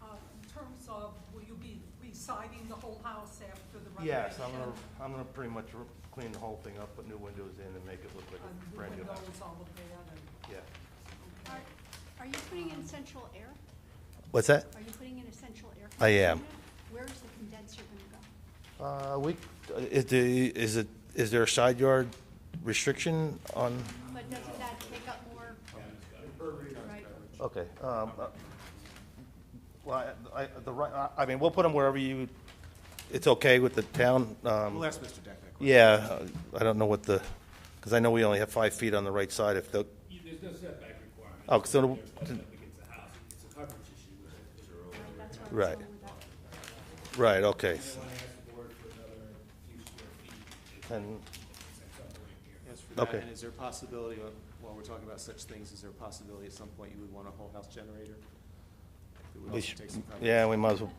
Uh, siding the whole house after the renovation? Yes, I'm gonna, I'm gonna pretty much re- clean the whole thing up, put new windows in and make it look like And a the brand new house. windows all of that and, Yeah. okay. Are- Are you putting in central air? What's that? Are you putting in a central air? I am. conditioner? Where's the condenser going to Uh, we, is the, is it, is there a side yard restriction on, go? But doesn't that take up more? Right. okay, um, uh, well, I, I- the right, I- I mean, we'll put them wherever you, it's okay with the town, um, We'll ask Mr. Deck that question. yeah, I don't know what the, because I know we only have five feet on the right side if the, You- There's no setback requirement. Oh, so the- It's not up against the house, it's a coverage issue. It's a- Right, that's where I was Right. going with that. right, okay. I want to ask the board for another few square feet. And, It's up right here. Yes, for that, Okay. and is there a possibility, of- while we're talking about such things, is there a possibility at some point you would want a whole house generator? It would we also should, take some time. yeah, we might as well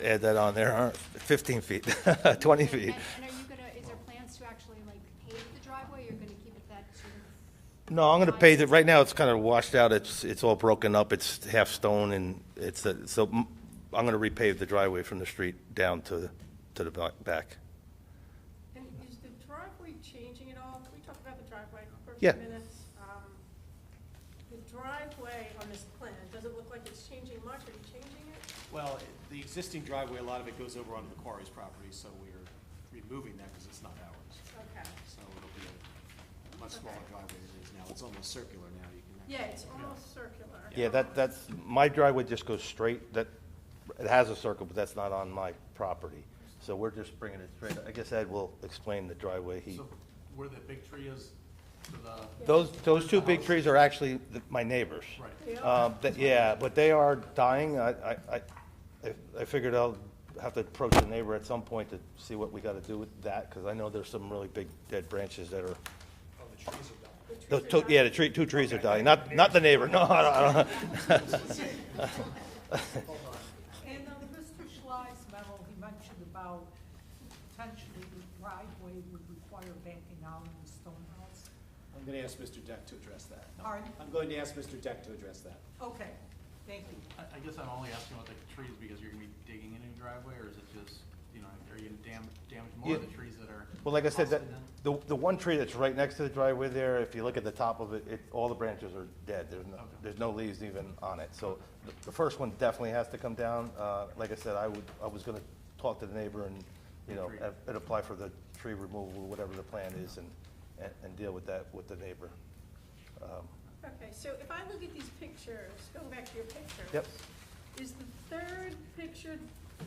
add that on there, huh? fifteen feet, twenty feet. And- And are you gonna, is there plans to actually like pave the driveway, or you're gonna keep it that sort of? No, I'm gonna pave it, right now, it's kind of washed out, it's, it's all broken up, it's half stone, and it's, a- so, mm, I'm gonna repave the driveway from the street down to, to the ba- back. And is the driveway changing at all? Can we talk about the driveway for a Yeah. few minutes? Um, The driveway on this plan, does it look like it's changing much? Are you changing it? Well, it- the existing driveway, a lot of it goes over onto the quarry's property, so we're removing that because it's not ours. Okay. So it'll be a much smaller driveway than it is now. It's almost circular now. You can. Yeah, it's almost circular. Yeah, that, that's, my driveway just goes straight, that, it has a circle, but that's not on my property. So we're just bringing it straight, I guess Ed will explain the driveway he. So where the big tree is, to the, Those, those two big trees are actually the- my neighbors. right. Um, th- yeah, but they are dying. I, I, I, I- I figured I'll have to approach the neighbor at some point to see what we gotta do with that, because I know there's some really big dead branches that are. Oh, the trees are dying. yeah, the tree, two trees are dying. Not, not the neighbor, no, I don't, I don't. And on Mr. Schley's memo, he mentioned about potentially the driveway would require backing out of the stone house. I'm going to ask Mr. Deck to address that. Pardon? I'm going to ask Mr. Deck to address that. Okay, thank you. I, I guess I'm only asking about the trees because you're gonna be digging into the driveway, or is it just, you know, are you gonna dam, damage more of Yeah. the trees that are? Well, like I said, that, possibly done? the, the one tree that's right next to the driveway there, if you look at the top of it, it, all the branches are dead. There's no, there's no leaves even on it. So the, the first one definitely has to come down. Uh, like I said, I would, I was gonna talk to the neighbor and, you know, and- and apply for the tree removal, whatever the plan is, and, and, and deal with that with the neighbor. Okay, so if I look at these pictures, going back to your pictures. Yep. Is the third picture,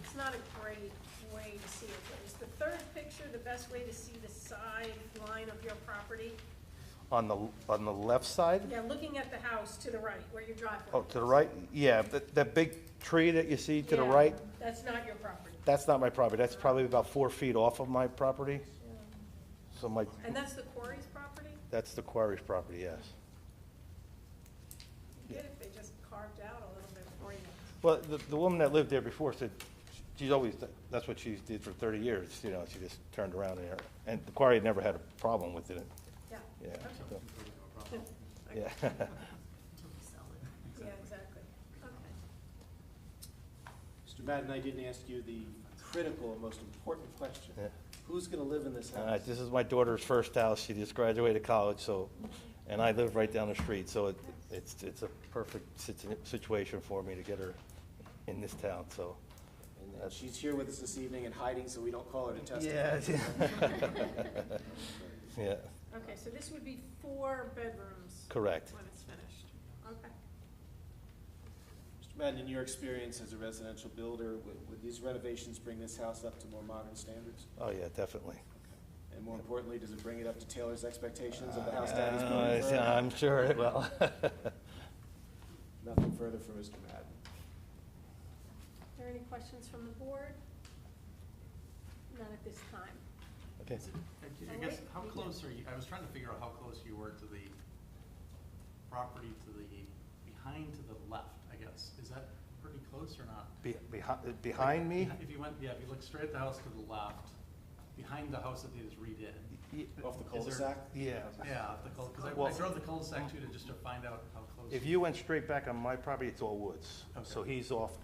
it's not a great way to see it, but is the third picture the best way to see the side line of your property? On the, on the left side? Yeah, looking at the house to the right, where your driveway Oh, to the right? Yeah, that, that big tree that you see to the Yeah, right, That's not your property. that's not my property. That's probably about four feet off of my property. So my, And that's the quarry's property? That's the quarry's property, yes. You get if they just carved out a little bit for you. Well, the, the woman that lived there before said, she's always, that's what she did for thirty years, you know, she just turned around and, and the quarry had never had a problem with it, Yeah. yeah. so, Okay. Yeah, Yeah, exactly. Okay. Mr. Madden, I didn't ask you the critical and most important question. Yeah. Who's going to live in this All right, house? this is my daughter's first house, she just graduated college, so, and I live right down the street, so it, it's, it's a perfect situ- situation for me to get her in this town, so. And uh, she's here with us this evening and hiding, so we don't call her to testify. Yeah, Okay, so this would be four bedrooms correct. when it's finished. Okay. Mr. Madden, in your experience as a residential builder, would, would these renovations bring this house up to more modern standards? Oh, yeah, definitely. And more importantly, does it bring it up to Taylor's expectations of the house that he's Uh, building? for her? I'm sure it will. Nothing further for Mr. Madden. Are there any questions from the board? None at this time. Okay. I I guess, how close are you, I was trying to figure out how close you were to the property to the, behind to the left, I guess. Is that pretty close or not? Be- behi- Behind me? If you went, yeah, if you look straight at the house to the left, behind the house that they just redid. Y- Off the Is cul-de-sac? there- Yeah. Yeah, off the cul, because I I Well- drove the cul-de-sac too to just to find out how close. If you went straight back on my property, it's all woods. So Okay. he's off